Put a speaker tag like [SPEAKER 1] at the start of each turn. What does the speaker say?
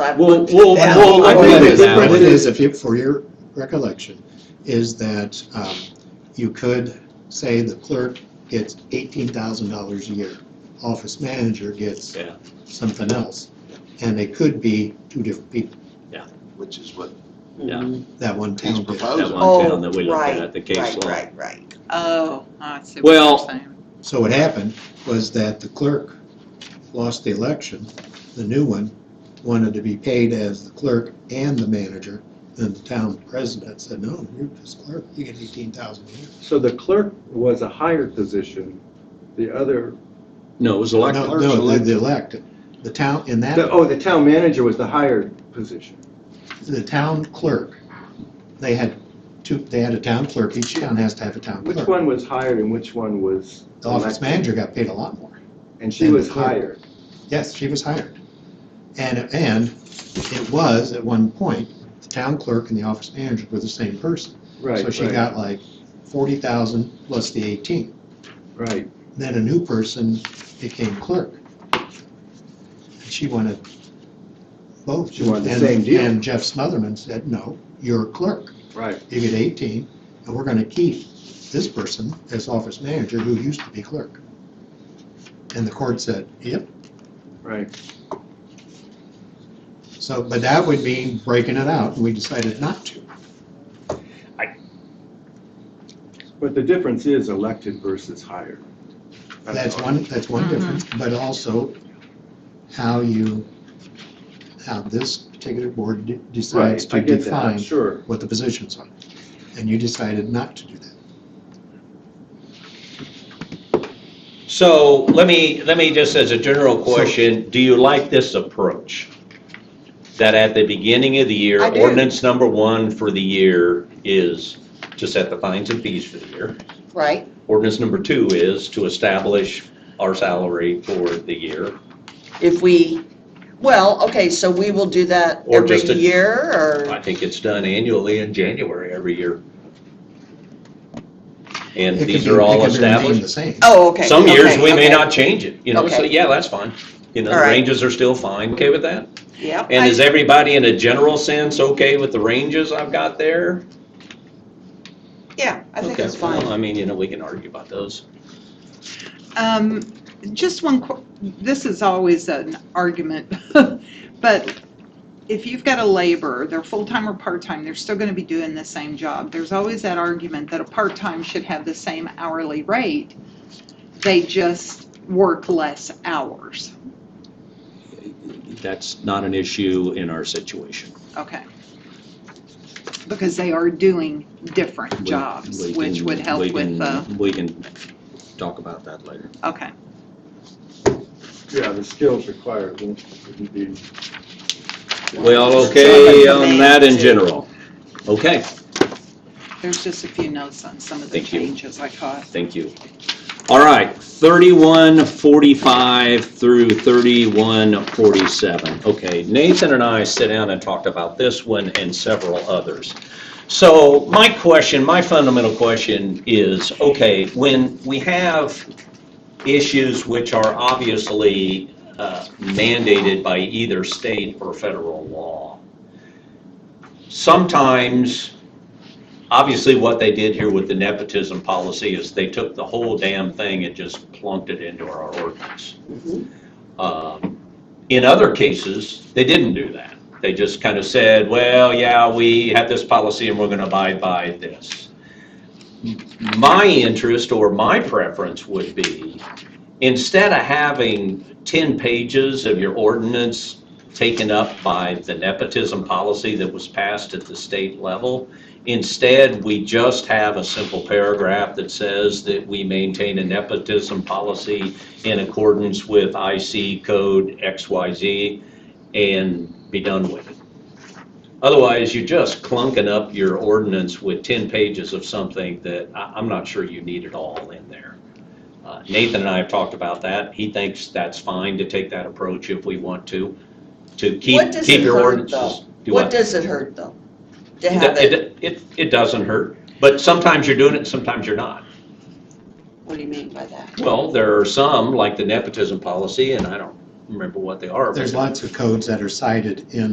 [SPEAKER 1] I've
[SPEAKER 2] We'll,
[SPEAKER 1] looked.
[SPEAKER 2] we'll,
[SPEAKER 3] Yeah.
[SPEAKER 2] we'll, I
[SPEAKER 3] Well,
[SPEAKER 2] think
[SPEAKER 3] it
[SPEAKER 2] the
[SPEAKER 3] is now.
[SPEAKER 2] difference
[SPEAKER 3] It
[SPEAKER 2] is,
[SPEAKER 3] if you, for your recollection, is that um, you could say the clerk gets eighteen thousand dollars a year. Office manager gets
[SPEAKER 2] Yeah.
[SPEAKER 3] something else, and they could be two different people,
[SPEAKER 4] which is what
[SPEAKER 2] Yeah.
[SPEAKER 3] that one
[SPEAKER 4] he's
[SPEAKER 3] town did.
[SPEAKER 2] that
[SPEAKER 4] proposing.
[SPEAKER 2] one town that we looked
[SPEAKER 1] Oh, right,
[SPEAKER 2] at, the case
[SPEAKER 1] Right,
[SPEAKER 2] law.
[SPEAKER 1] right, right.
[SPEAKER 5] Oh, I see what you're
[SPEAKER 2] Well-
[SPEAKER 5] saying.
[SPEAKER 3] So what happened was that the clerk lost the election, the new one wanted to be paid as the clerk and the manager, and the town president said, no, you're just clerk, you get eighteen thousand a year.
[SPEAKER 6] So the clerk was a higher position, the other,
[SPEAKER 2] No, it was
[SPEAKER 3] No,
[SPEAKER 2] elected.
[SPEAKER 4] Clerk's
[SPEAKER 3] no, the-
[SPEAKER 4] elected.
[SPEAKER 3] the elected, the town, in
[SPEAKER 6] the-
[SPEAKER 3] that,
[SPEAKER 6] oh, the town manager was the higher position.
[SPEAKER 3] the town clerk, they had two, they had a town clerk, each town has to have a town
[SPEAKER 6] Which
[SPEAKER 3] clerk.
[SPEAKER 6] one was hired and which one was?
[SPEAKER 3] The office
[SPEAKER 6] elected?
[SPEAKER 3] manager got paid a lot more.
[SPEAKER 6] And she
[SPEAKER 3] and the
[SPEAKER 6] was
[SPEAKER 3] clerk.
[SPEAKER 6] hired.
[SPEAKER 3] Yes, she was hired. And, and it was, at one point, the town clerk and the office manager were the same person.
[SPEAKER 6] Right,
[SPEAKER 3] So she
[SPEAKER 6] right,
[SPEAKER 3] got like forty thousand plus the eighteen.
[SPEAKER 6] right.
[SPEAKER 3] Then a new person became clerk. And she wanted both.
[SPEAKER 6] She wanted the
[SPEAKER 3] And-
[SPEAKER 6] same deal.
[SPEAKER 3] And Jeff Smotherman said, no, you're a clerk.
[SPEAKER 6] Right.
[SPEAKER 3] You get eighteen, and we're gonna keep this person as office manager who used to be clerk. And the court said, yep,
[SPEAKER 6] Right.
[SPEAKER 3] So, but that would mean breaking it out, and we decided not to.
[SPEAKER 6] But the difference is elected versus hired.
[SPEAKER 3] That's
[SPEAKER 6] all.
[SPEAKER 3] one, that's one difference, but also how you, how this particular board de- decides
[SPEAKER 6] Right, I
[SPEAKER 3] to
[SPEAKER 6] get that, I'm
[SPEAKER 3] define
[SPEAKER 6] sure.
[SPEAKER 3] what the positions are. And you decided not to do that.
[SPEAKER 2] So let me, let me just as a general question, do you like this approach? That at the beginning of the year,
[SPEAKER 1] I do.
[SPEAKER 2] ordinance number one for the year is to set the fines and fees for the year.
[SPEAKER 1] Right,
[SPEAKER 2] Ordinance number two is to establish our salary for the year.
[SPEAKER 1] if we, well, okay, so we will do that
[SPEAKER 2] Or
[SPEAKER 1] every
[SPEAKER 2] just a-
[SPEAKER 1] year,
[SPEAKER 2] I
[SPEAKER 1] or,
[SPEAKER 2] think it's done annually in January every year. And
[SPEAKER 3] It could
[SPEAKER 2] these
[SPEAKER 3] be-
[SPEAKER 2] are
[SPEAKER 3] it
[SPEAKER 2] all
[SPEAKER 3] could remain
[SPEAKER 2] established.
[SPEAKER 3] the same.
[SPEAKER 1] oh, okay.
[SPEAKER 2] Some years,
[SPEAKER 1] okay,
[SPEAKER 2] we may
[SPEAKER 1] okay.
[SPEAKER 2] not change it, you know, so
[SPEAKER 1] Okay.
[SPEAKER 2] yeah, that's fine. You know,
[SPEAKER 1] All
[SPEAKER 2] the
[SPEAKER 1] right.
[SPEAKER 2] ranges are still fine, okay with that?
[SPEAKER 1] Yep.
[SPEAKER 2] And
[SPEAKER 1] I-
[SPEAKER 2] is everybody in a general sense okay with the ranges I've got there?
[SPEAKER 1] Yeah, I think
[SPEAKER 2] Okay,
[SPEAKER 1] it's fine.
[SPEAKER 2] well, I mean, you know, we can argue about those.
[SPEAKER 5] Um, just one, qu- this is always an argument, but if you've got a laborer, they're full-time or part-time, they're still gonna be doing the same job. There's always that argument that a part-time should have the same hourly rate, they just work less hours.
[SPEAKER 2] That's not an issue in our situation.
[SPEAKER 5] Okay. Because they are doing different
[SPEAKER 2] We-
[SPEAKER 5] jobs,
[SPEAKER 2] we
[SPEAKER 5] which
[SPEAKER 2] can-
[SPEAKER 5] would
[SPEAKER 2] we
[SPEAKER 5] help with
[SPEAKER 2] can-
[SPEAKER 1] uh,
[SPEAKER 5] the,
[SPEAKER 2] We can talk about that later.
[SPEAKER 5] okay.
[SPEAKER 6] Yeah, the skills required wouldn't wouldn't be.
[SPEAKER 2] Well,
[SPEAKER 1] okay
[SPEAKER 2] okay,
[SPEAKER 1] on
[SPEAKER 2] on that in general. Okay,
[SPEAKER 5] There's just a few notes on some of the
[SPEAKER 2] Thank you.
[SPEAKER 5] changes I caught.
[SPEAKER 2] thank you. All right, thirty-one forty-five through thirty-one forty-seven. Okay, Nathan and I sit down and talked about this one and several others. So my question, my fundamental question is, okay, when we have issues which are obviously uh, mandated by either state or federal law, sometimes, obviously what they did here with the nepotism policy is they took the whole damn thing and just plunked it into our ordinance. Um, In other cases, they didn't do that. They just kind of said, well, yeah, we have this policy and we're going to abide by this. My interest or my preference would be, instead of having 10 pages of your ordinance taken up by the nepotism policy that was passed at the state level, instead, we just have a simple paragraph that says that we maintain a nepotism policy in accordance with IC code XYZ and be done with it. Otherwise, you're just clunking up your ordinance with 10 pages of something that I- I'm not sure you need it all in there. Uh, Nathan and I have talked about that. He thinks that's fine to take that approach if we want to, to keep,
[SPEAKER 1] What does
[SPEAKER 2] keep
[SPEAKER 1] it
[SPEAKER 2] your
[SPEAKER 1] hurt,
[SPEAKER 2] ordinances.
[SPEAKER 1] though?
[SPEAKER 2] Do
[SPEAKER 1] What does it hurt, though? To have it,
[SPEAKER 2] it, it, it, it doesn't hurt, but sometimes you're doing it, sometimes you're not.
[SPEAKER 1] what do you mean by that?
[SPEAKER 2] Well, there are some, like the nepotism policy, and I don't remember what they are. but-
[SPEAKER 3] There's lots of codes that are cited in